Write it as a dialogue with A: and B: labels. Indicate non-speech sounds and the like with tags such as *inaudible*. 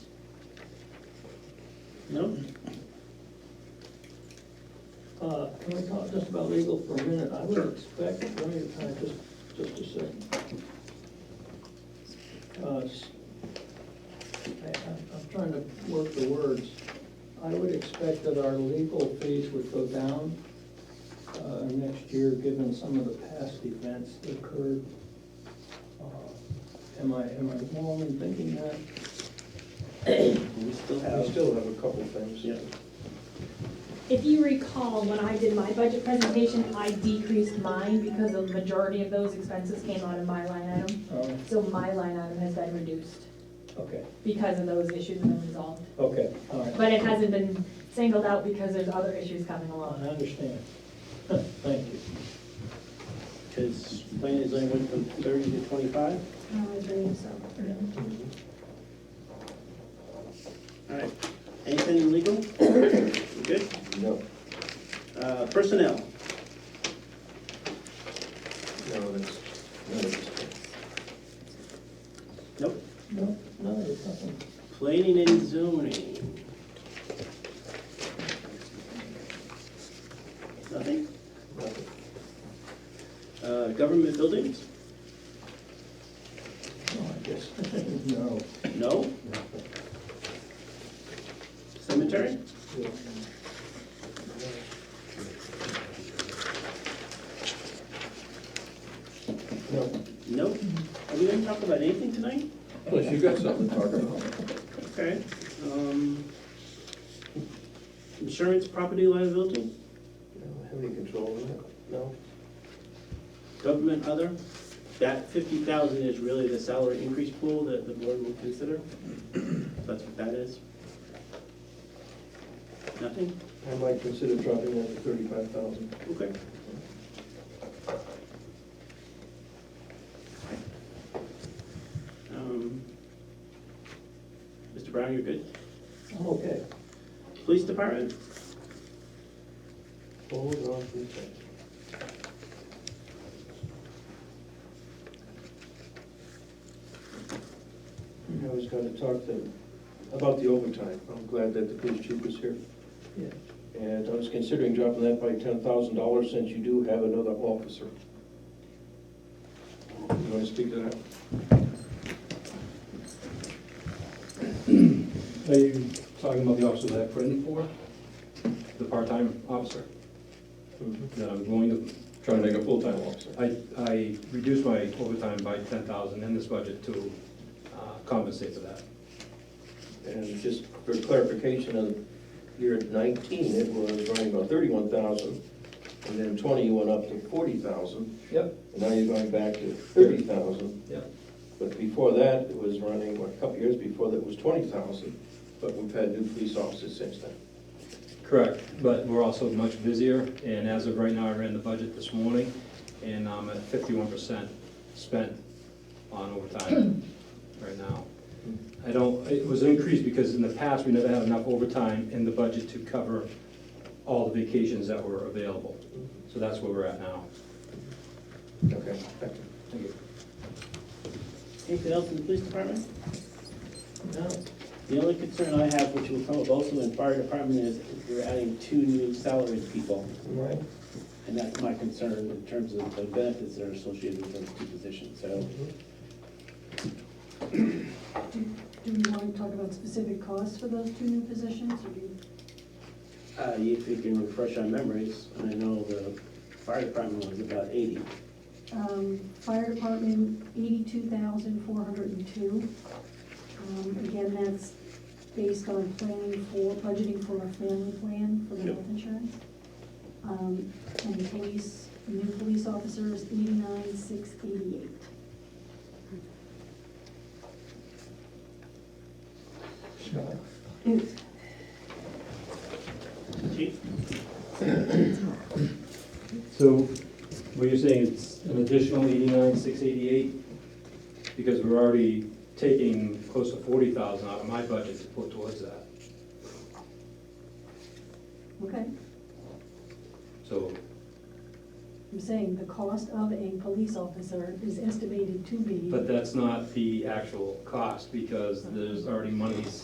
A: No?
B: Uh, Can we talk just about legal for a minute? I
A: Sure.
B: would expect, let me, uh, just, just a second. Uh, s- I- I'm I'm trying to work the words. I would expect that our legal fees would go down uh, next year, given some of the past events that occurred. Uh, Am I, am I wrong in thinking that?
A: We still
C: We still have a couple things.
A: Yeah.
D: If you recall, when I did my budget presentation, I decreased mine because the majority of those expenses came out of my line item.
B: Oh,
D: So my line item has been reduced
B: Okay,
D: because of those issues and been resolved.
B: okay, all right.
D: But it hasn't been singled out because there's other issues coming
B: I
D: along.
B: understand. *laughs* Thank you.
A: Because planning design went from thirty to twenty-five.
E: Oh,
D: I believe so.
A: All right. Anything legal? We Good?
C: No,
A: Uh, Personnel,
C: no, that's, no, that's.
A: nope.
B: No, no, there's nothing.
A: Planning and zoning. Nothing?
C: nothing.
A: Uh, Government buildings?
B: No, I guess, *laughs* no.
A: No? Cemetery?
C: No,
A: Nope. Are we gonna talk about anything tonight?
F: Plus, you got something to talk about.
A: Okay. um, Insurance, property liability,
C: I don't have any control over that, no.
A: government other. That fifty thousand is really the salary increase pool that the board will consider. That's what that is. Nothing?
C: I might consider dropping that to thirty-five thousand.
A: Okay. Um, Mr. Brown, you're good.
B: I'm okay.
A: Police department?
C: Hold on for a second. I was gonna talk to, about the overtime. I'm glad that the police chief was here.
B: Yeah.
C: And I was considering dropping that by ten thousand dollars since you do have another officer. You wanna speak to that?
G: Are you talking about the officer that I put in for? The part-time officer? That I'm going to try Mm-hmm. to make a full-time officer. I, I reduced my overtime by ten thousand in this budget to uh, compensate for that.
C: And just for clarification, on year nineteen, it was running about thirty-one thousand, and then twenty, you went up to forty thousand,
G: Yep.
C: and now you're going back to thirty thousand.
G: Yep.
C: But before that, it was running, what, a couple years before that was twenty thousand, but we've had new police officers since then.
G: Correct, but we're also much busier, and as of right now, I ran the budget this morning, and I'm at fifty-one percent spent on overtime right now.
C: Mm-hmm.
G: I don't, it was increased because in the past, we never had enough overtime in the budget to cover all the vacations that were available. So that's where we're at now.
C: Okay, thank you.
G: Thank you.
A: Anything else in the police department?
B: No,
A: The only concern I have, which will come up also in fire department, is we're adding two new salaried people.
C: All right.
A: And that's my concern in terms of the benefits that are associated with those two positions, so.
C: mm-hmm.
E: Do we want to talk about specific costs for those two new positions, or do you?
A: Uh, if you can refresh our memories, and I know the fire department was about eighty.
E: Um, Fire department, eighty-two thousand, four hundred and two. Um, Again, that's based on planning for, budgeting for a family plan for the
A: Yep.
E: health insurance. Um, And police, new police officers, eighty-nine, six eighty-eight.
C: Scott?
A: Chief?
G: So what you're saying, it's an additional eighty-nine, six eighty-eight? Because we're already taking close to forty thousand out of my budget to put towards that.
E: Okay,
G: So
E: I'm saying the cost of a police officer is estimated to be.
G: But that's not the actual cost, because there's already monies